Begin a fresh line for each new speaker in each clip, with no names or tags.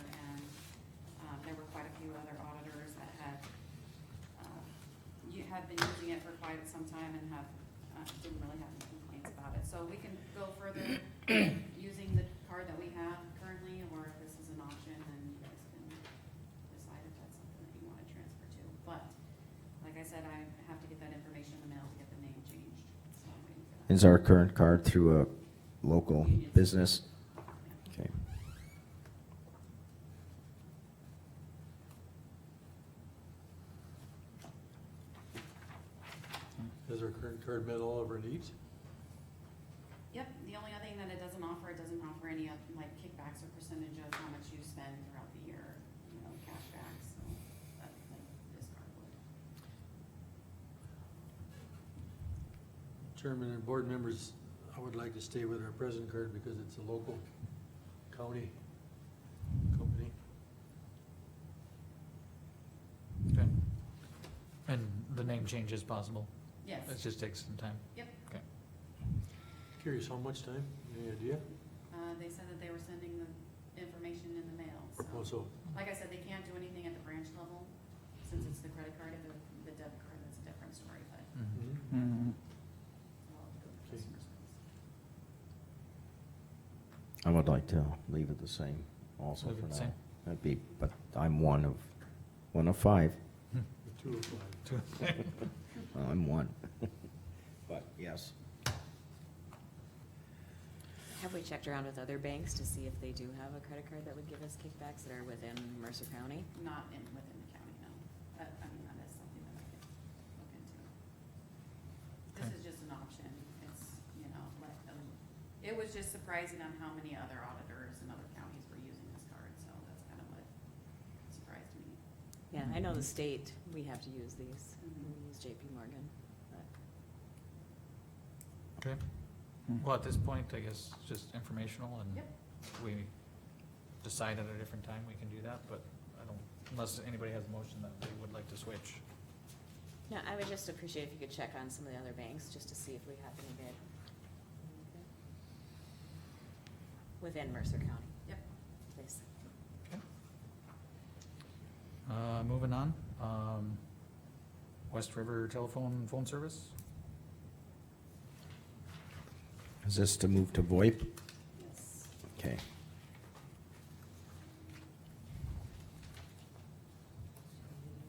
um, have um, been using it for quite some time and have, uh, didn't really have any complaints about it. So we can go further using the card that we have currently, or if this is an option, then you guys can decide if that's something that you wanna transfer to. But, like I said, I have to get that information in the mail to get the name changed, so I'm waiting for that.
Is our current card through a local business? Okay.
Has our current card met all of our needs?
Yep, the only other thing that it doesn't offer, it doesn't offer any of, like kickbacks or percentage of how much you spend throughout the year, you know, cashbacks, so that, like, this card would.
Chairman and board members, I would like to stay with our present card because it's a local county company.
Okay. And the name change is possible.
Yes,
It just takes some time.
Curious how much time? Any idea?
uh, they said that they were sending the information in the mail, so,
Also,
like I said, they can't do anything at the branch level, since it's the credit card, if it the debit card, that's a different story, but
Mm-hmm.
Mhm.
we'll have to go to
Okay.
customer service.
I would like to leave it the same also
Leave it
for
the
now.
same.
That'd be, but I'm one of, one of five.
the two of five.
Well, I'm one. But yes,
Have we checked around with other banks to see if they do have a credit card that would give us kickbacks that are within Mercer County?
Not in, within the county, no, but, I mean, that is something that I could look into. This
Okay.
is just an option, it's, you know, let them, it was just surprising on how many other auditors in other counties were using this card, so that's kind of what surprised me.
Yeah, I know the state, we have to use these,
Mhm.
we use JP Morgan, but
Okay. Well, at this point, I guess, it's just informational and
Yep.
we decide at a different time, we can do that, but I don't, unless anybody has a motion that they would like to switch.
No, I would just appreciate if you could check on some of the other banks, just to see if we happen to get within Mercer County.
Yep.
Please.
Uh, moving on, um, West River Telephone Phone Service?
is this to move to VoIP?
Yes.
Okay.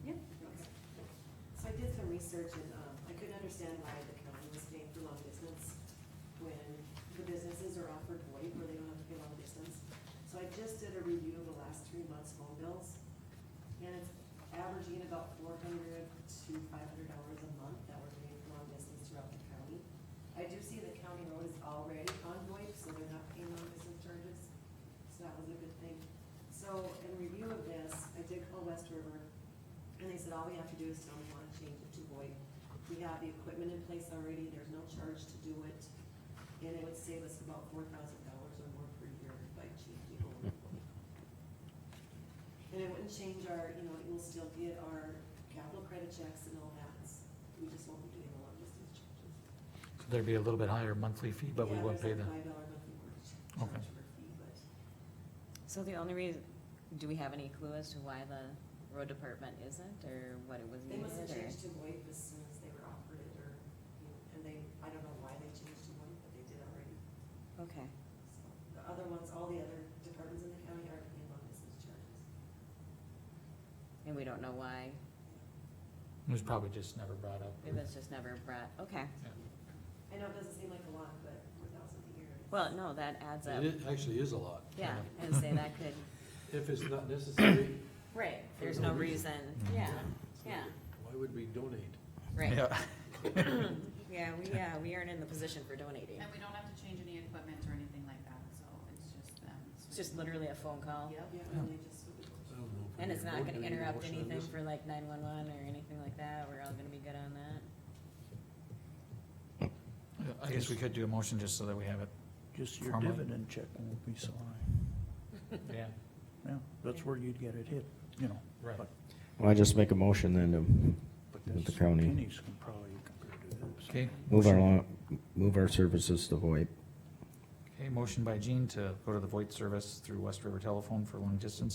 Yep.
So I did some research and, um, I couldn't understand why the county was paying for long distance when the businesses are offered VoIP where they don't have to pay long distance. So I just did a review of the last three months' phone bills, and it's averaging about four hundred to five hundred dollars a month that we're paying for long distance throughout the county. I do see the county road is already on VoIP, so they're not paying long distance charges, so that was a good thing. So in review of this, I did call West River, and they said, all we have to do is tell them we want to change it to VoIP. We have the equipment in place already, there's no charge to do it, and it would save us about four thousand dollars or more per year by changing over. to VoIP. And it wouldn't change our, you know, it will still get our capital credit checks and all that, we just won't be doing the long distance charges.
So There'd be a little bit higher monthly fee, but we
Yeah,
won't pay
there's
the,
a Five dollar monthly mortgage
Okay.
charge for a fee, but
So the only reason, do we have any clue as to why the road department isn't, or what it was
They
needed,
must have
or?
changed to VoIP as soon as they were offered it, or, you know, and they, I don't know why they changed to VoIP, but they did already.
Okay,
So The other ones, all the other departments in the county are paying on business charges.
and we don't know why,
it was probably just never brought up.
it was just never brought, okay.
I know it doesn't seem like a lot, but four thousand a year. is-
Well, no, that adds up,
It i- actually is a lot.
yeah, and say that could,
If it's not necessary.
right,
For
there's
no
no
reason.
reason, yeah, yeah,
Why would we donate?
right.
Yeah.
Yeah, we, uh, we aren't in the position for donating,
And we don't have to change any equipment or anything like that, so it's just them.
it's just literally a phone call,
Yep.
Yeah, and they just. would-
I don't know. if we
and it's
need a
not
vote. Do
gonna
we need a
interrupt
motion on
anything
this?
for like nine-one-one or anything like that, we're all gonna be good on that.
I guess we could do a motion just so that we have it,
Just your
Formally.
dividend check won't be so high.
yeah,
Yeah, that's where you'd get it hit, you know.
right.
Well, I just make a motion then to
But
With the
that's
county.
pennies can probably compare to this.
Okay.
move our,
motion-
lo- move our services to VoIP.
Okay, motion by Gene to go to the VoIP service through West River Telephone for long distance,